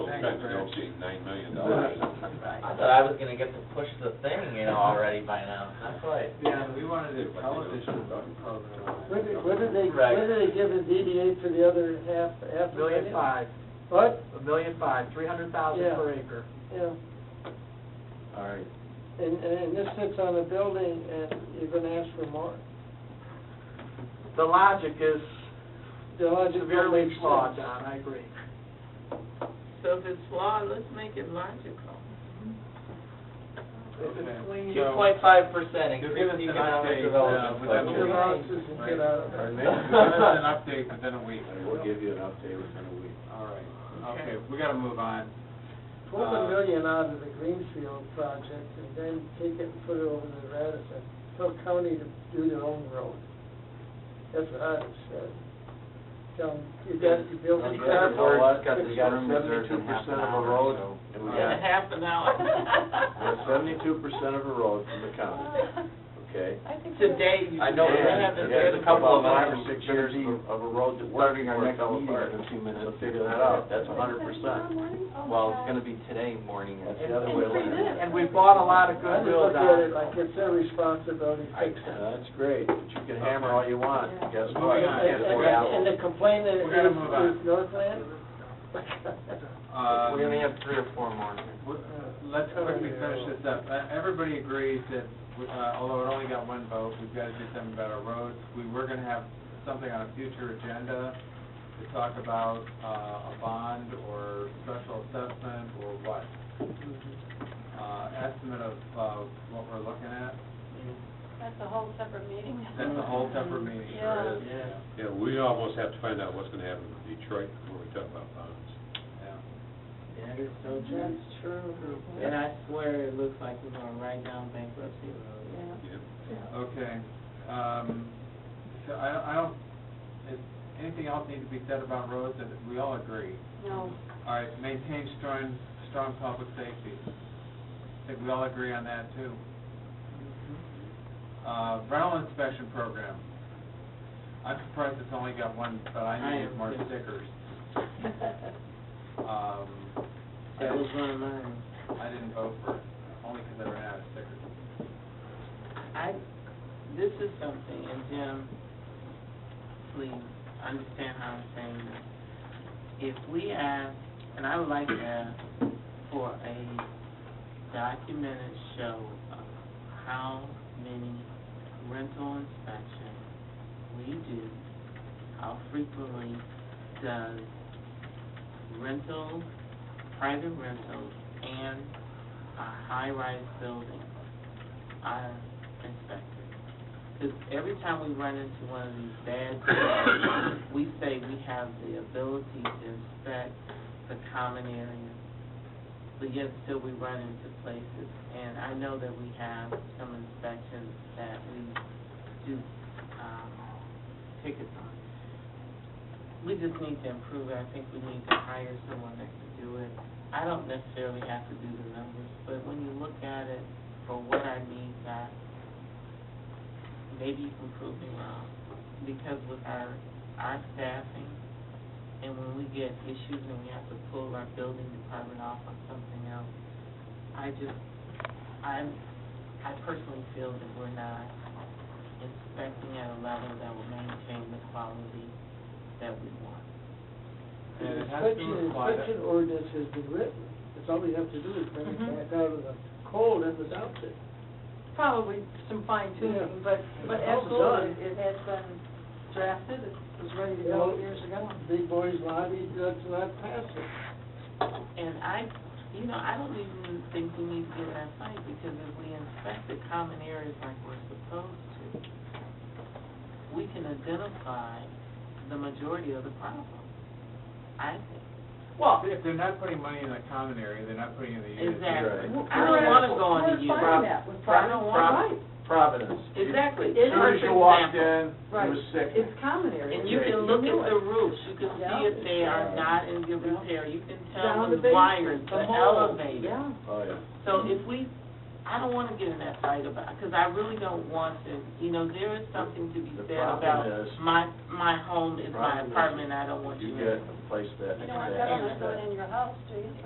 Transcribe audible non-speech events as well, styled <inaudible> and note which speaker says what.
Speaker 1: trying to negotiate nine million dollars.
Speaker 2: Right.
Speaker 3: I thought I was gonna get to push the thing, you know, already by now, that's why.
Speaker 4: Yeah, we wanted a television
Speaker 5: <laughs>
Speaker 4: program.
Speaker 6: What did, what did they,
Speaker 3: Right.
Speaker 6: what did they give the DDA for the other half, half a
Speaker 4: Million
Speaker 6: million?
Speaker 4: five,
Speaker 6: What?
Speaker 4: a million five, three hundred thousand
Speaker 6: Yeah.
Speaker 4: per acre.
Speaker 6: Yeah,
Speaker 3: All right.
Speaker 6: and, and and this sits on a building and you're gonna ask for more?
Speaker 4: The logic is
Speaker 6: The logic don't
Speaker 4: severely
Speaker 6: make
Speaker 4: flawed,
Speaker 6: sense.
Speaker 4: John, I agree.
Speaker 7: So if it's flawed, let's make it logical.
Speaker 4: If it's clean,
Speaker 3: Two point five percent
Speaker 5: Give
Speaker 3: increase
Speaker 5: us an
Speaker 3: economic
Speaker 5: update, uh,
Speaker 3: development
Speaker 5: with that
Speaker 6: Your
Speaker 3: budget.
Speaker 6: losses and get out of
Speaker 5: Give
Speaker 6: there.
Speaker 5: us an update within a week.
Speaker 1: We'll give you an update within a week.
Speaker 5: All right, okay, we gotta move on.
Speaker 4: Uh,
Speaker 6: Twelve million out of the Greenfield project and then take it and put it over to Radisson. Tell county to do their own road. That's what I would say. Tell them, you got, you built
Speaker 3: Well,
Speaker 6: a
Speaker 3: you
Speaker 6: car
Speaker 3: gotta
Speaker 6: park.
Speaker 3: work. Well, it's got-
Speaker 6: fix
Speaker 3: you gotta
Speaker 6: it.
Speaker 3: set-
Speaker 1: Seventy-two percent of a road, and we
Speaker 7: In
Speaker 1: got,
Speaker 7: a half an hour.
Speaker 1: <laughs> we're seventy-two percent of a road from the county, okay?
Speaker 7: <laughs> Today, you.
Speaker 3: I know,
Speaker 7: should
Speaker 3: we're gonna
Speaker 7: have
Speaker 3: have to
Speaker 7: it
Speaker 1: And
Speaker 3: get
Speaker 1: there's a
Speaker 3: a couple
Speaker 1: couple of
Speaker 3: of
Speaker 1: five or
Speaker 3: them.
Speaker 1: six years of- of a road that we're
Speaker 5: Starting our next meeting in a few minutes.
Speaker 1: So figure that out, that's a hundred percent.
Speaker 8: Well,
Speaker 3: it's gonna be today morning.
Speaker 1: That's the other way
Speaker 8: And free
Speaker 1: around.
Speaker 4: and we bought a lot
Speaker 6: I
Speaker 4: of
Speaker 6: just
Speaker 4: goodwill,
Speaker 6: look at it
Speaker 4: Don.
Speaker 6: like it's their responsibility to
Speaker 1: I-
Speaker 6: fix it.
Speaker 1: That's great, but you can hammer all you want, guess what?
Speaker 5: Moving
Speaker 1: You
Speaker 5: on.
Speaker 1: can't
Speaker 6: And-
Speaker 1: afford
Speaker 6: And and
Speaker 1: apples.
Speaker 6: the complaint is,
Speaker 5: We gotta move on.
Speaker 6: is Northland?
Speaker 5: Um,
Speaker 3: We only have three or four more.
Speaker 5: w- Let's quickly finish this up. Uh, Everybody agrees that, uh, although it only got one vote, we've gotta do something about our roads. We were gonna have something on a future agenda to talk about, uh, a bond or special assessment or what? Uh, estimate of, uh, what we're looking at.
Speaker 8: That's a whole separate meeting.
Speaker 5: That's a whole separate meeting, sure is.
Speaker 1: Yeah,
Speaker 3: Yeah.
Speaker 1: we almost have to find out what's gonna happen in Detroit before we talk about bonds.
Speaker 5: Yeah.
Speaker 2: That is so true. true. And I swear, it looks like we're gonna write down bankruptcy road.
Speaker 5: Okay, um, so I don't, I don't, is, anything else need to be said about roads that we all agree?
Speaker 8: No.
Speaker 5: All right, maintain strong, strong public safety. I think we all agree on that too. Uh, rental inspection program. I'm surprised it's only got one, but I
Speaker 2: I
Speaker 5: needed
Speaker 2: am
Speaker 5: more
Speaker 2: too.
Speaker 5: stickers. Um,
Speaker 2: That was one of mine.
Speaker 5: I didn't vote for it, only because I ran out of stickers.
Speaker 2: I, this is something, and Jim, please, understand how I'm saying this. If we ask, and I would like to ask for a documented show of how many rental inspections we do, how frequently does rental, private rentals, and a high-rise building are inspected. Because every time we run into one of these bad things, we say we have the ability to inspect the common areas, but yet still we run into places. And I know that we have some inspections that we do, um, tickets on. We just need to improve it, I think we need to hire someone that can do it. I don't necessarily have to do the numbers, but when you look at it for what I mean by maybe you can prove me wrong, because with our, our staffing, and when we get issues and we have to pull our building department off on something else, I just, I'm, I personally feel that we're not inspecting at a level that will maintain the quality that we want.
Speaker 5: And it has to
Speaker 6: Inspection,
Speaker 5: apply to-
Speaker 6: inspection ordinance has been written, that's all we have to do is bring it
Speaker 8: Mhm.
Speaker 6: back out of the cold and was out there.
Speaker 8: Probably some fine
Speaker 6: Yeah.
Speaker 8: tuning, but, but
Speaker 6: It's all
Speaker 8: absolutely,
Speaker 6: done.
Speaker 8: it has been drafted, it was ready to
Speaker 6: Well-
Speaker 8: go years ago.
Speaker 6: Big boys lobby, let's not pass it.
Speaker 2: And I, you know, I don't even think we need to get that fight, because if we inspect the common areas like we're supposed to, we can identify the majority of the problem, I think.
Speaker 5: Well. If they're not putting money in the common area, they're not putting it in the unit.
Speaker 2: Exactly.
Speaker 1: Right.
Speaker 2: I don't wanna go on to you.
Speaker 8: We're finding that with
Speaker 2: I don't
Speaker 8: private-
Speaker 2: wanna,
Speaker 1: Providence.
Speaker 2: exactly.
Speaker 1: As
Speaker 8: It is-
Speaker 1: soon as you walked in, it
Speaker 8: Right.
Speaker 1: was sick.
Speaker 8: It's common area.
Speaker 2: And you can look at the roofs, you can see if they are not in good repair, you can tell the wires, the elevator.
Speaker 8: Yeah.
Speaker 1: Oh, yeah.
Speaker 2: So if we, I don't wanna get in that fight about, because I really don't want to, you know, there is something to be
Speaker 1: The
Speaker 2: said
Speaker 1: problem
Speaker 2: about
Speaker 1: is-
Speaker 2: my, my home is
Speaker 1: problem
Speaker 2: my
Speaker 1: is
Speaker 2: apartment, I don't want you
Speaker 1: You
Speaker 2: in.
Speaker 1: get a place that.
Speaker 8: You don't want
Speaker 1: that-
Speaker 8: government going in your house, do you?